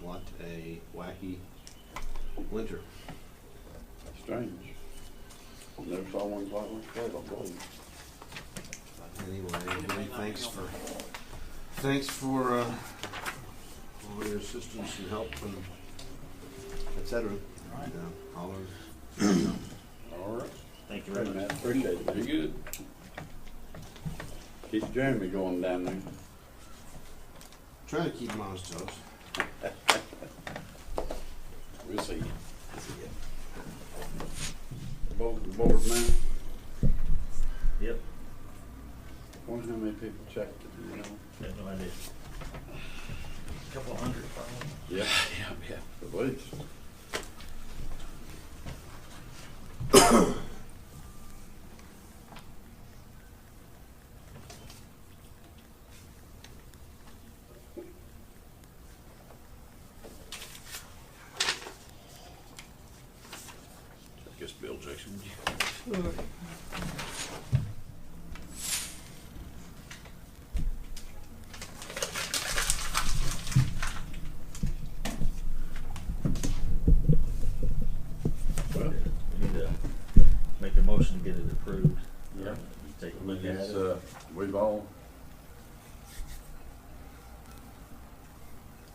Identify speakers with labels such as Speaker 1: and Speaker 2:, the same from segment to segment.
Speaker 1: what a wacky winter.
Speaker 2: Strange. Never saw one quite like that, I believe.
Speaker 1: But Anyway, everybody, thanks for, thanks for, uh, all your assistance and help and et cetera. And, uh, holler.
Speaker 2: All right.
Speaker 3: Thank you very
Speaker 2: Very
Speaker 3: much.
Speaker 2: much. Appreciate it. Very good. Keep Jeremy going down there.
Speaker 1: Try to keep him on his toes.
Speaker 2: We'll see. Board, board man,
Speaker 3: Yep,
Speaker 2: wonder how many people checked it, you know?
Speaker 3: got no idea. Couple hundred probably.
Speaker 2: Yeah, yeah, yeah. At least.
Speaker 4: I guess Bill Jackson, would you?
Speaker 2: Well,
Speaker 3: We need to make a motion to get it approved.
Speaker 2: Yeah.
Speaker 3: Take a
Speaker 2: I
Speaker 3: look
Speaker 2: mean,
Speaker 3: at
Speaker 2: it's,
Speaker 3: it.
Speaker 2: uh, we've all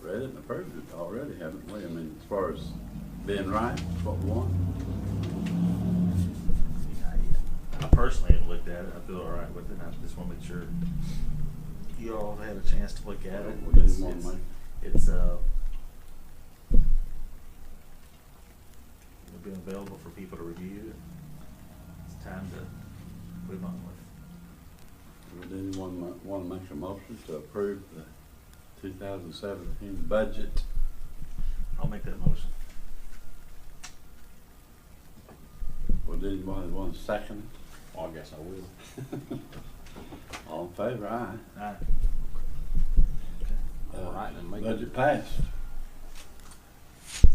Speaker 2: read it and approved it already, haven't we? I mean, as far as being right, what we want.
Speaker 3: I personally have looked at it, I feel all right with it, I just wanna make sure you all have had a chance to look at it.
Speaker 2: We didn't
Speaker 3: It's-
Speaker 2: wanna
Speaker 3: it's-
Speaker 2: make-
Speaker 3: It's, uh, it'll be available for people to review. It's time to move on with.
Speaker 2: Would anyone want to make a motion to approve the 2017 budget?
Speaker 3: I'll make that motion.
Speaker 2: Would anyone want to second
Speaker 4: Well, I guess I will.
Speaker 2: it? All in favor, aye.
Speaker 3: Aye.
Speaker 4: All right, then make it.
Speaker 2: Budget passed.